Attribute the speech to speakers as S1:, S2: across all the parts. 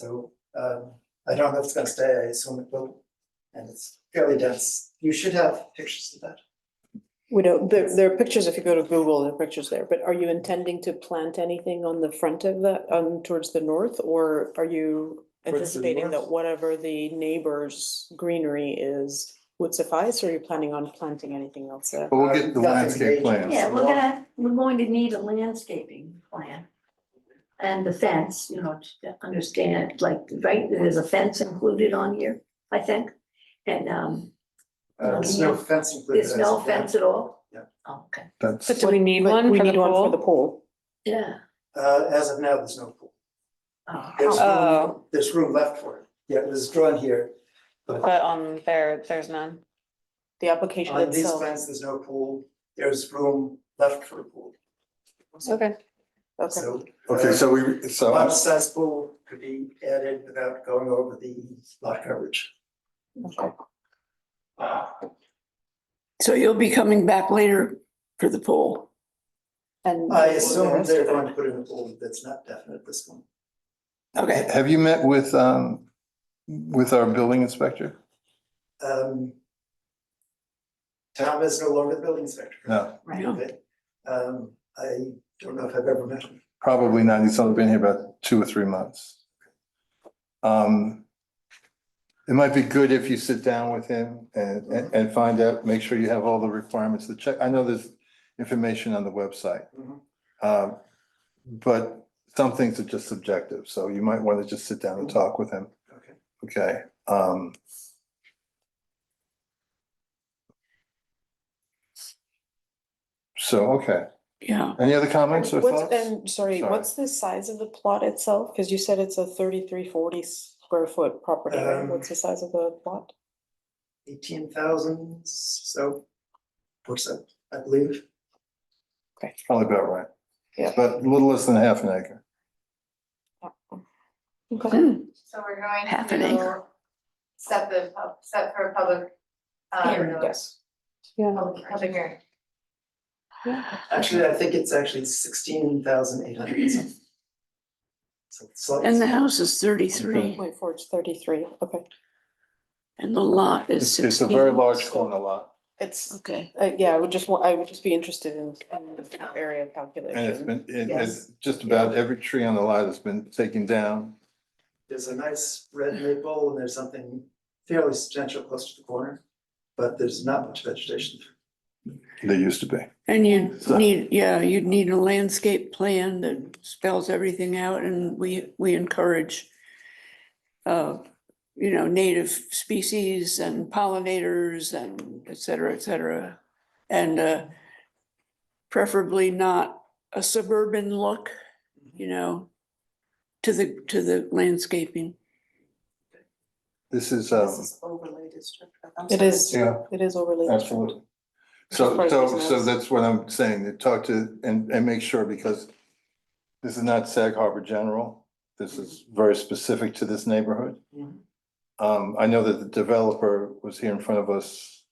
S1: So um I don't know if it's gonna stay, I assume it will. And it's fairly dense. You should have pictures of that.
S2: We don't, there, there are pictures, if you go to Google, there are pictures there, but are you intending to plant anything on the front of that, on, towards the north? Or are you
S1: Towards the
S2: anticipating that
S1: north?
S2: whatever the neighbor's greenery is would suffice, or are you planning on planting anything else there?
S3: But we'll get the
S1: Nothing major.
S3: landscape plans.
S1: Yeah,
S4: Yeah, we're
S1: well-
S4: gonna, we're going to need a landscaping plan. And the fence, you know, to understand, like, right, there's a fence included on here, I think. And um,
S1: Uh, there's no fence included.
S4: there's no
S1: as of yet.
S4: fence at all?
S1: Yeah.
S4: Okay,
S3: That's,
S5: But do we need
S2: But
S5: one
S2: we
S5: for the
S2: need one for the
S5: pool?
S2: pool.
S4: yeah.
S1: Uh, as of now, there's no pool.
S4: Oh,
S1: There's room,
S5: Oh.
S1: there's room left for it. Yeah, it was drawn here.
S5: But on there, there's none.
S2: The application
S1: On Uh, these
S2: itself,
S1: plans, there's no pool. There's room left for a pool.
S5: Okay.
S2: okay,
S1: So. uh,
S3: okay, so we, so,
S1: Lot size pool could be added without going over the lot coverage.
S2: okay.
S6: So you'll be coming back later for the pool.
S2: And.
S1: I
S2: the
S1: assume
S2: rest
S1: they're
S2: of it.
S1: going to put in a pool that's not definite at this point.
S6: Okay,
S3: have you met with, um, with our building inspector?
S1: Um. Tom is no longer the building inspector.
S3: No,
S4: Right,
S1: Okay. Um, I don't know if I've ever met him.
S3: probably not. He's only been here about two or three months. Um, it might be good if you sit down with him and, and, and find out, make sure you have all the requirements, the check. I know there's information on the website.
S1: Mhm.
S3: Um, but some things are just subjective, so you might want to just sit down and talk with him.
S1: Okay.
S3: Okay, um. So, okay,
S6: yeah,
S3: any other comments or
S2: What's-
S3: thoughts?
S2: And sorry,
S3: Sorry.
S2: what's the size of the plot itself? Cause you said it's a thirty-three forty square foot property, right?
S1: Um,
S2: What's the size of the plot?
S1: Eighteen thousand, so. What's that, I believe.
S3: Probably about right.
S2: Yeah.
S3: But a little less than half an acre.
S5: Hmm.
S2: Okay.
S7: So we're going
S6: Half an acre.
S7: to set the, pub- set for a public. um,
S4: Hearing.
S2: Yes. Yeah.
S7: Public public hearing.
S1: Actually, I think it's actually sixteen thousand eight hundred. So slightly.
S6: and the house is thirty-three
S2: Wait, for it's thirty-three, okay.
S6: and the lot is
S3: It's,
S6: sixteen.
S3: it's a very large corner lot,
S2: It's,
S6: Okay,
S2: uh, yeah, I would just, wa- I would just be interested in, in the area of calculation.
S3: and it's been, it-
S1: Yes.
S3: it's just about every tree on the lot has been taken down.
S1: There's a nice red maple and there's something fairly substantial close to the corner, but there's not much vegetation there.
S3: There used to be.
S6: and you
S3: So-
S6: need, yeah, you'd need a landscape plan that spells everything out and we, we encourage uh, you know, native species and pollinators and et cetera, et cetera. And uh, preferably not a suburban look, you know, to the, to the landscaping.
S3: This is, um,
S2: overlay district. It is,
S3: yeah,
S2: it is overlay. district.
S3: absolutely.
S2: Which is
S3: So,
S2: part of
S3: so,
S2: business.
S3: so that's what I'm saying, to talk to, and, and make sure, because this is not Sag Harbor General. This is very specific to this neighborhood.
S5: Mm-hmm.
S1: Mhm.
S3: Um, I know that the developer was here in front of us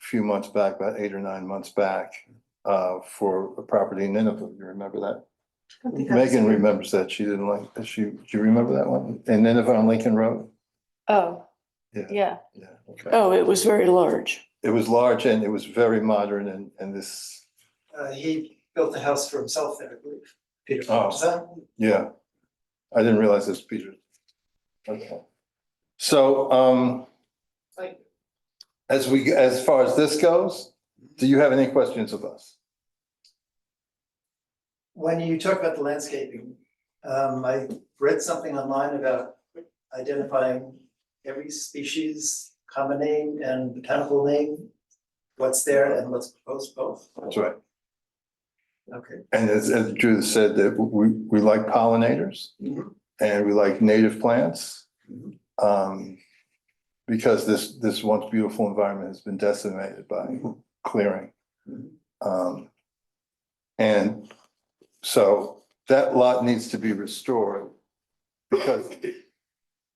S3: a few months back, about eight or nine months back, uh, for a property in Nineveh. You remember that? Megan remembers that. She didn't like, she, do you remember that one? In Nineveh on Lincoln Road?
S5: Oh,
S3: Yeah.
S5: yeah.
S3: Yeah. okay.
S6: Oh, it was very large.
S3: It was large and it was very modern and, and this,
S1: Uh, he built the house for himself there, I believe. Peter.
S3: Oh.
S1: Is that-
S3: yeah. I didn't realize this, Peter. Okay. So, um,
S7: Like-
S3: as we, as far as this goes, do you have any questions of us?
S1: When you talk about the landscaping, um, I read something online about identifying every species, common name and botanical name, what's there and what's proposed both.
S3: That's right.
S1: Okay.
S3: And as, as Judith said, that we, we like pollinators
S1: Mhm.
S3: and we like native plants.
S1: Mhm.
S3: Um, because this, this once beautiful environment has been decimated by clearing.
S1: Mhm.
S3: Um, and so that lot needs to be restored because it-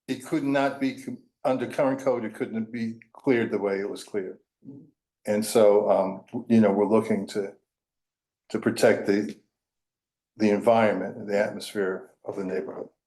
S3: it could not be, com- under current code, it couldn't be cleared the way it was cleared.
S1: Mhm.
S3: And so, um, you know, we're looking to, to protect the, the environment, and the atmosphere of the neighborhood.